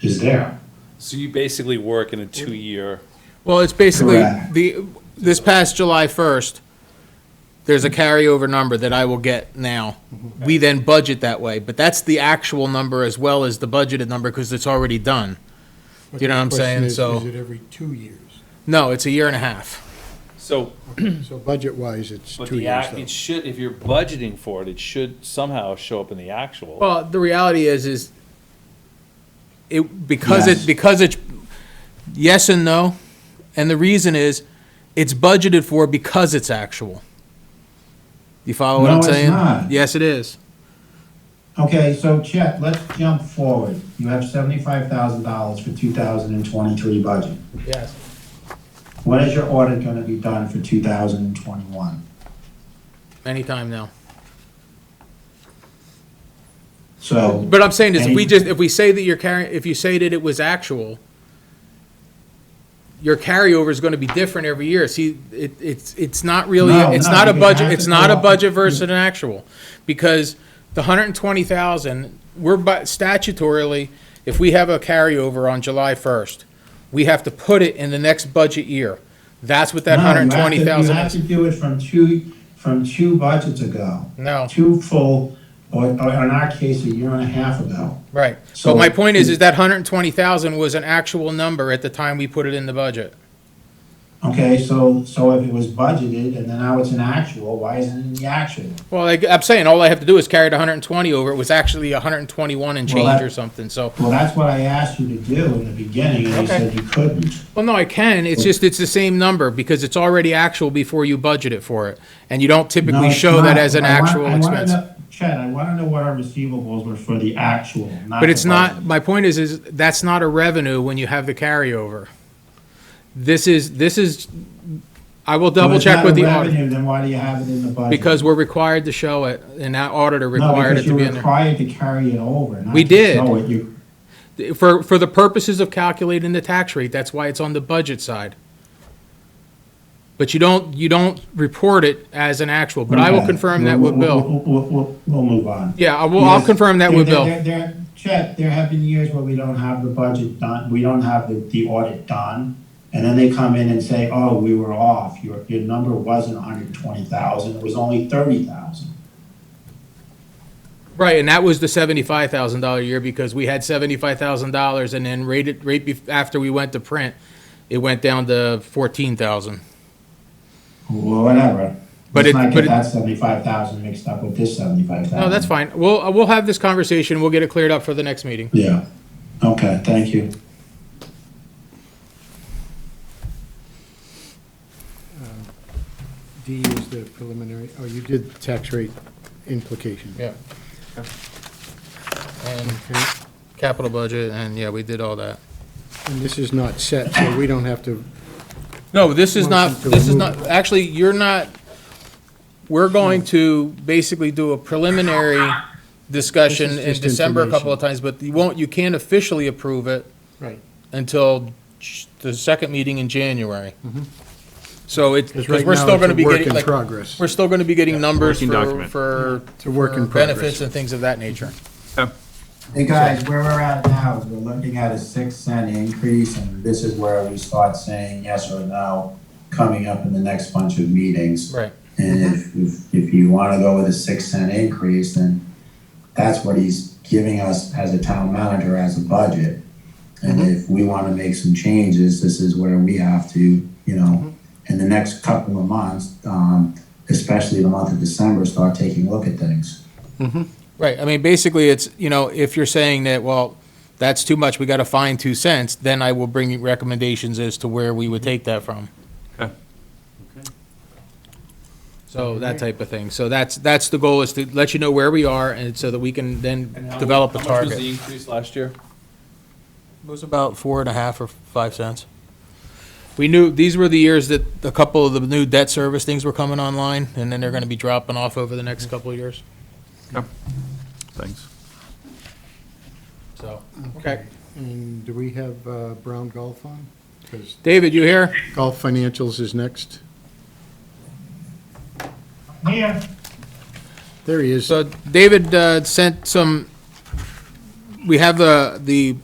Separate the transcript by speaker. Speaker 1: is there.
Speaker 2: So you basically work in a two-year,
Speaker 3: Well, it's basically,
Speaker 1: Correct.
Speaker 3: the, this past July 1st, there's a carryover number that I will get now.
Speaker 1: Mm-hmm.
Speaker 3: We then budget that way, but that's the actual number as well as the budgeted number because it's already done.
Speaker 4: But
Speaker 3: You know
Speaker 4: the
Speaker 3: what I'm
Speaker 4: question
Speaker 3: saying?
Speaker 4: is,
Speaker 3: So-
Speaker 4: Is it every two years?
Speaker 3: No, it's a year and a half.
Speaker 2: so,
Speaker 4: So budget-wise, it's
Speaker 2: but
Speaker 4: two
Speaker 2: the
Speaker 4: years
Speaker 2: act, it
Speaker 4: though.
Speaker 2: should, if you're budgeting for it, it should somehow show up in the actual.
Speaker 3: Well, the reality is, is it, because
Speaker 1: Yes.
Speaker 3: it, because it's, yes and no. And the reason is, it's budgeted for because it's actual. You follow what
Speaker 1: No,
Speaker 3: I'm
Speaker 1: it's
Speaker 3: saying?
Speaker 1: not.
Speaker 3: Yes, it is.
Speaker 1: Okay, so Chet, let's jump forward. You have seventy-five thousand dollars for two thousand and twenty-three budget.
Speaker 3: Yes.
Speaker 1: When is your audit gonna be done for two thousand and twenty-one?
Speaker 3: Anytime now.
Speaker 1: So,
Speaker 3: But I'm saying is, if we
Speaker 1: Any-
Speaker 3: just, if we say that you're carrying, if you say that it was actual, your carryover is gonna be different every year. See, it, it's, it's not really,
Speaker 1: No,
Speaker 3: it's
Speaker 1: no,
Speaker 3: not a
Speaker 1: because
Speaker 3: budget,
Speaker 1: that's
Speaker 3: it's
Speaker 1: a
Speaker 3: not a
Speaker 1: lot.
Speaker 3: budget versus an actual. Because the hundred and twenty thousand, we're but statutorily, if we have a carryover on July first, we have to put it in the next budget year. That's what that
Speaker 1: No, you have
Speaker 3: hundred and
Speaker 1: to-
Speaker 3: twenty thousand
Speaker 1: You have
Speaker 3: is.
Speaker 1: to do it from two, from two budgets ago.
Speaker 3: No.
Speaker 1: Two full, or, or in our case, a year and a half ago.
Speaker 3: Right. But
Speaker 1: So-
Speaker 3: my point is, is that hundred and twenty thousand was an actual number at the time we put it in the budget.
Speaker 1: Okay, so, so if it was budgeted and then now it's an actual, why isn't it in the actual?
Speaker 3: Well, like, I'm saying, all I have to do is carry the 120 over. It was actually 121 and
Speaker 1: Well,
Speaker 3: change
Speaker 1: that-
Speaker 3: or something, so.
Speaker 1: Well, that's what I asked you to do in the beginning and you
Speaker 3: Okay.
Speaker 1: said you couldn't.
Speaker 3: Well, no, I can. It's just, it's the same number because it's already actual before you budget it for it. And you don't
Speaker 1: No,
Speaker 3: typically
Speaker 1: it's
Speaker 3: show that
Speaker 1: not.
Speaker 3: as an
Speaker 1: I want-
Speaker 3: actual
Speaker 1: I wanna
Speaker 3: expense.
Speaker 1: know- Chad, I wanna know what our receivables were for the actual, not
Speaker 3: But
Speaker 1: the
Speaker 3: it's not,
Speaker 1: budget.
Speaker 3: my point is, is that's not a revenue when you have the carryover. This is, this is, I will
Speaker 1: Well,
Speaker 3: double
Speaker 1: it's
Speaker 3: check
Speaker 1: not
Speaker 3: with
Speaker 1: a
Speaker 3: the auditor.
Speaker 1: revenue, Then why do you have it in the budget?
Speaker 3: Because we're required to show it and that auditor
Speaker 1: No,
Speaker 3: required
Speaker 1: because
Speaker 3: it to
Speaker 1: you're
Speaker 3: be in there.
Speaker 1: required to carry it over, not
Speaker 3: We
Speaker 1: to
Speaker 3: did.
Speaker 1: show it. You-
Speaker 3: For, for the purposes of calculating the tax rate, that's why it's on the budget side. But you don't, you don't report it as an actual, but I will
Speaker 1: Okay.
Speaker 3: confirm that
Speaker 1: We'll-
Speaker 3: with
Speaker 1: we'll-
Speaker 3: Bill.
Speaker 1: We'll, we'll, we'll move on.
Speaker 3: Yeah, I will, I'll
Speaker 1: Because
Speaker 3: confirm that
Speaker 1: there-
Speaker 3: with
Speaker 1: there-
Speaker 3: Bill.
Speaker 1: there- there- Chet, there have been years where we don't have the budget done, we don't have the, the audit done. And then they come in and say, oh, we were off, your, your number wasn't hundred and twenty thousand, it was only thirty thousand.
Speaker 3: Right, and that was the seventy-five thousand dollar year because we had seventy-five thousand dollars and then rated, right bef- after we went to print, it went down to fourteen thousand.
Speaker 1: Well, whatever.
Speaker 3: But
Speaker 1: Let's
Speaker 3: it-
Speaker 1: not
Speaker 3: but
Speaker 1: get
Speaker 3: it-
Speaker 1: that seventy-five thousand mixed up with this seventy-five thousand.
Speaker 3: No, that's fine. We'll, we'll have this conversation. We'll get it cleared up for the next meeting.
Speaker 1: Yeah, okay, thank you.
Speaker 4: D is the preliminary, oh, you did the tax rate implication.
Speaker 3: Yeah. And
Speaker 4: Okay,
Speaker 3: capital budget, and yeah, we did all that.
Speaker 4: And this is not set, so we don't have to,
Speaker 3: No, this is not,
Speaker 4: Motion to
Speaker 3: this is
Speaker 4: remove.
Speaker 3: not, actually, you're not, we're going to basically do a preliminary discussion
Speaker 4: This is
Speaker 3: in
Speaker 4: just
Speaker 3: December a couple
Speaker 4: information.
Speaker 3: of times, but you won't, you can't officially approve it
Speaker 4: right,
Speaker 3: until j- the second meeting in January. So it's,
Speaker 4: Mm-hmm. because
Speaker 3: because
Speaker 4: right
Speaker 3: we're
Speaker 4: now
Speaker 3: still
Speaker 4: it's
Speaker 3: gonna
Speaker 4: a
Speaker 3: be
Speaker 4: work
Speaker 3: getting,
Speaker 4: in
Speaker 3: like,
Speaker 4: progress.
Speaker 3: we're still gonna be getting numbers
Speaker 5: working
Speaker 3: for,
Speaker 5: document.
Speaker 3: for
Speaker 4: It's a work in
Speaker 3: for benefits
Speaker 4: progress.
Speaker 3: and things of that nature.
Speaker 1: Hey, guys, where we're at now is we're looking at a six cent increase, and this is where we start saying yes or no coming up in the next bunch of meetings.
Speaker 3: Right.
Speaker 1: And if, if, if you wanna go with a six cent increase, then that's what he's giving us as a town manager, as a budget. And if we wanna make some changes, this is where we have to, you know, in the next couple of months, um, especially the month of December, start taking a look at things.
Speaker 3: Right, I mean, basically, it's, you know, if you're saying that, well, that's too much, we gotta find two cents, then I will bring you recommendations as to where we would
Speaker 2: Mm-hmm.
Speaker 3: take that from.
Speaker 5: Okay.
Speaker 3: So that type of thing, so that's, that's the goal, is to let you know where we are, and so that we can
Speaker 2: And
Speaker 3: then
Speaker 2: how-
Speaker 3: develop a
Speaker 2: How much was
Speaker 3: target.
Speaker 2: the increase last year?
Speaker 3: It was about four and a half or five cents. We knew, these were the years that a couple of the new debt service things were coming online, and then they're gonna be dropping off over the next couple of years,
Speaker 5: Thanks.
Speaker 3: so. Okay.
Speaker 4: And do we have uh, Brown Golf on? Because
Speaker 3: David, you here?
Speaker 4: Golf Financials is next.
Speaker 1: Yeah.
Speaker 4: There he is.
Speaker 3: So David uh, sent some, we have the, the